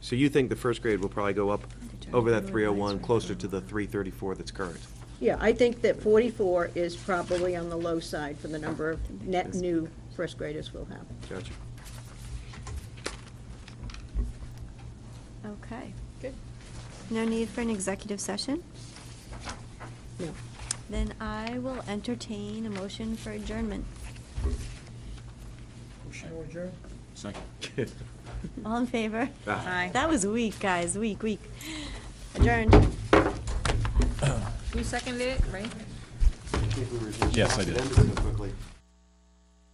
So you think the first grade will probably go up over that 301, closer to the 334 that's current? Yeah, I think that forty-four is probably on the low side for the number of net new first graders we'll have. Gotcha. Okay. Good. No need for an executive session? No. Then I will entertain a motion for adjournment. Second. All in favor? Ah. Aye. That was weak, guys, weak, weak. Adjourned. You seconded it, right? Yes, I did. Quickly.